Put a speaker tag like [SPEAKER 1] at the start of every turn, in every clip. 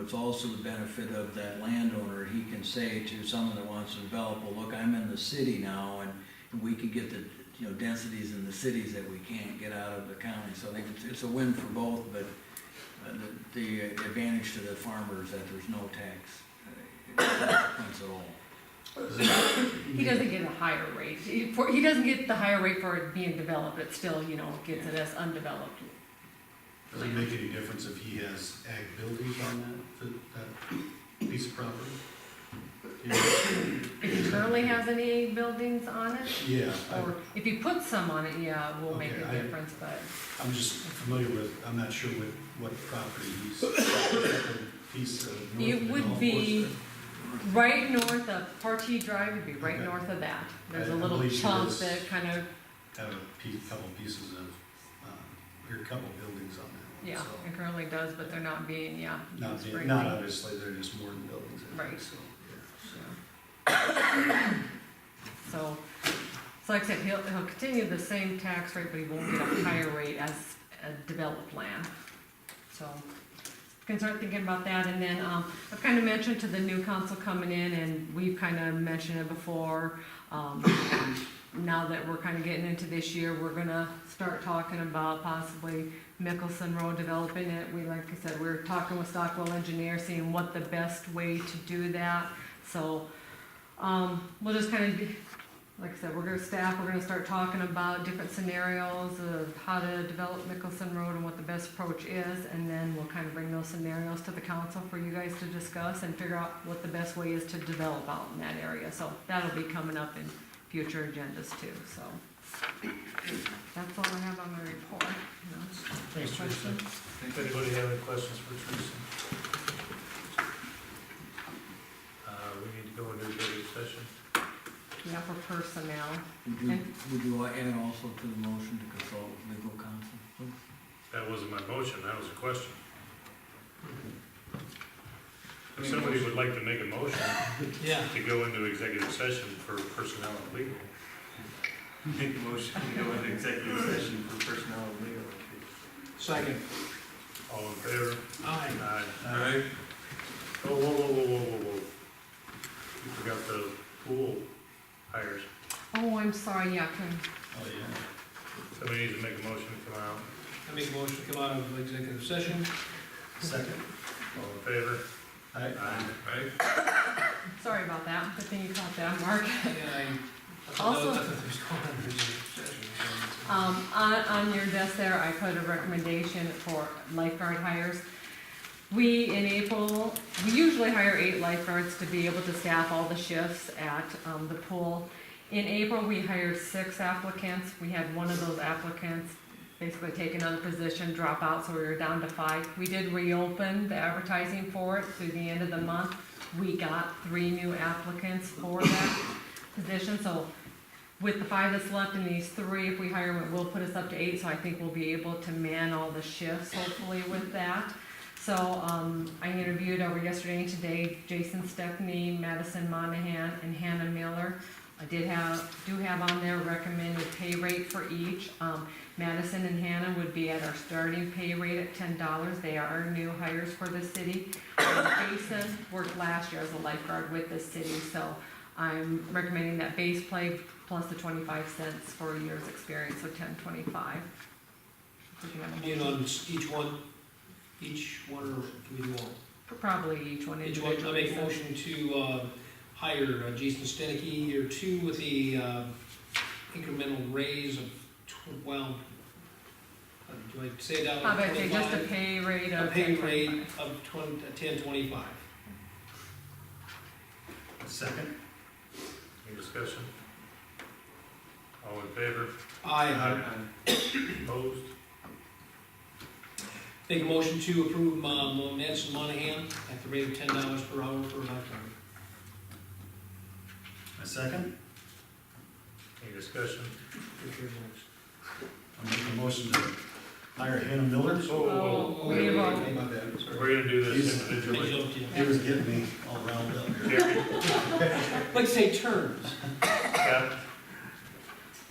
[SPEAKER 1] it's also the benefit of that landowner. He can say to someone that wants to develop, well, look, I'm in the city now, and, and we can get the, you know, densities in the cities that we can't get out of the county. So I think it's, it's a win for both, but uh, the, the advantage to the farmer is that there's no tax uh, points at all.
[SPEAKER 2] He doesn't get a higher rate, he, for, he doesn't get the higher rate for it being developed, it still, you know, gets it as undeveloped.
[SPEAKER 3] Does it make any difference if he has ag buildings on that, that that piece of property? Yeah,
[SPEAKER 2] If he currently has any buildings on it,
[SPEAKER 3] Yeah,
[SPEAKER 2] or
[SPEAKER 3] I-
[SPEAKER 2] if he puts some on it, yeah, will make
[SPEAKER 3] Okay,
[SPEAKER 2] a
[SPEAKER 3] I-
[SPEAKER 2] difference, but.
[SPEAKER 3] I'm just familiar with, I'm not sure what, what property he's, that piece of. north
[SPEAKER 2] It
[SPEAKER 3] of the
[SPEAKER 2] would
[SPEAKER 3] golf
[SPEAKER 2] be-
[SPEAKER 3] course
[SPEAKER 2] Right north of Partee Drive would be right
[SPEAKER 3] Okay.
[SPEAKER 2] north of that. There's
[SPEAKER 3] I-
[SPEAKER 2] a
[SPEAKER 3] I
[SPEAKER 2] little
[SPEAKER 3] believe she
[SPEAKER 2] chunk
[SPEAKER 3] lives-
[SPEAKER 2] that kind of,
[SPEAKER 3] there. Have a pe- couple pieces of, um, or a couple buildings on that
[SPEAKER 2] yeah,
[SPEAKER 3] one, so.
[SPEAKER 2] it currently does, but they're not being, yeah.
[SPEAKER 3] Not, being-
[SPEAKER 2] sprinkled.
[SPEAKER 3] not obviously, they're just more than buildings, I think,
[SPEAKER 2] Right.
[SPEAKER 3] so, yeah.
[SPEAKER 2] Yeah. So, so like I said, he'll, he'll continue the same tax rate, but he won't get a higher rate as a developed land. So, can start thinking about that, and then, um, I've kind of mentioned to the new council coming in, and we've kind of mentioned it before, um, now that we're kind of getting into this year, we're gonna start talking about possibly Mickelson Road developing it. We, like I said, we're talking with Stockwell Engineer, seeing what the best way to do that. So, um, we'll just kind of, like I said, we're gonna staff, we're gonna start talking about different scenarios of how to develop Mickelson Road and what the best approach is. And then we'll kind of bring those scenarios to the council for you guys to discuss and figure out what the best way is to develop out in that area. So that'll be coming up in future agendas too, so. That's all I have on my report, you know.
[SPEAKER 4] Thanks, Teresa. If anybody have any questions for Teresa? Uh, we need to go into executive session.
[SPEAKER 2] Yeah, for personnel.
[SPEAKER 1] Would you, would you add also to the motion to consult with legal counsel? please?
[SPEAKER 4] That wasn't my motion, that was a question. If somebody would like to make a motion
[SPEAKER 5] Yeah.
[SPEAKER 4] to go into executive session for personnel and legal.
[SPEAKER 5] Make a motion to go into executive session for personnel and legal.
[SPEAKER 3] Second.
[SPEAKER 4] All in favor?
[SPEAKER 3] Aye.
[SPEAKER 4] Aye.
[SPEAKER 5] All right. Uh,
[SPEAKER 4] Oh, whoa, whoa, whoa, whoa, whoa, whoa. You forgot the pool hires.
[SPEAKER 2] Oh, I'm sorry, yeah, can,
[SPEAKER 3] Oh, yeah.
[SPEAKER 4] Somebody needs to make a motion to come out.
[SPEAKER 5] I make a motion to come out of executive session.
[SPEAKER 3] Second.
[SPEAKER 4] All in favor?
[SPEAKER 3] Aye.
[SPEAKER 4] Aye.
[SPEAKER 2] sorry about that, good thing you caught that, Mark.
[SPEAKER 5] And I, I
[SPEAKER 2] Also-
[SPEAKER 5] know that there's going on in executive session. so-
[SPEAKER 2] Um, on, on your desk there, I put a recommendation for lifeguard hires. We in April, we usually hire eight lifeguards to be able to staff all the shifts at, um, the pool. In April, we hired six applicants. We had one of those applicants basically take another position, drop out, so we were down to five. We did reopen the advertising for it through the end of the month. We got three new applicants for that position, so with the five that's left and these three, if we hire them, it will put us up to eight, so I think we'll be able to man all the shifts hopefully with that. So, um, I interviewed over yesterday and today Jason Stephanie, Madison Monahan, and Hannah Miller. I did have, do have on there recommended pay rate for each. Um, Madison and Hannah would be at our starting pay rate at ten dollars. They are our new hires for the city. And Jason worked last year as a lifeguard with the city, so I'm recommending that base play plus the twenty-five cents for a year's experience, so ten twenty-five.
[SPEAKER 5] You know, on each one, each one, or do we do all?
[SPEAKER 2] Probably each one
[SPEAKER 5] Did you want, I
[SPEAKER 2] individually.
[SPEAKER 5] make a motion to, uh, hire uh, Jason Stenicky, year two, with the, uh, incremental raise of twelve, uh, do I say that?
[SPEAKER 2] How about they just a
[SPEAKER 5] Twenty-five?
[SPEAKER 2] pay rate
[SPEAKER 5] A
[SPEAKER 2] of
[SPEAKER 5] pay
[SPEAKER 2] ten
[SPEAKER 5] rate
[SPEAKER 2] twenty-five?
[SPEAKER 5] of twen, ten twenty-five.
[SPEAKER 3] Second.
[SPEAKER 4] Any discussion? All in favor?
[SPEAKER 5] Aye.
[SPEAKER 4] Opposed?
[SPEAKER 5] Make a motion to approve, um, Madison Monahan at the rate of ten dollars per hour for lifetime.
[SPEAKER 3] A second.
[SPEAKER 4] Any discussion?
[SPEAKER 3] I'm making a motion to hire Hannah Miller.
[SPEAKER 4] Oh,
[SPEAKER 2] Oh, we will.
[SPEAKER 3] My bad.
[SPEAKER 4] We're gonna do this
[SPEAKER 5] I
[SPEAKER 4] individually.
[SPEAKER 5] jumped
[SPEAKER 3] He
[SPEAKER 5] you.
[SPEAKER 3] was getting me all round up here.
[SPEAKER 4] Gary,
[SPEAKER 5] Like say terms,
[SPEAKER 4] Scott,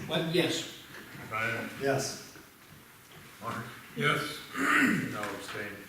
[SPEAKER 5] but yes,
[SPEAKER 4] Ryan,
[SPEAKER 3] Yes.
[SPEAKER 4] Mark,
[SPEAKER 6] Yes.
[SPEAKER 4] no abstain.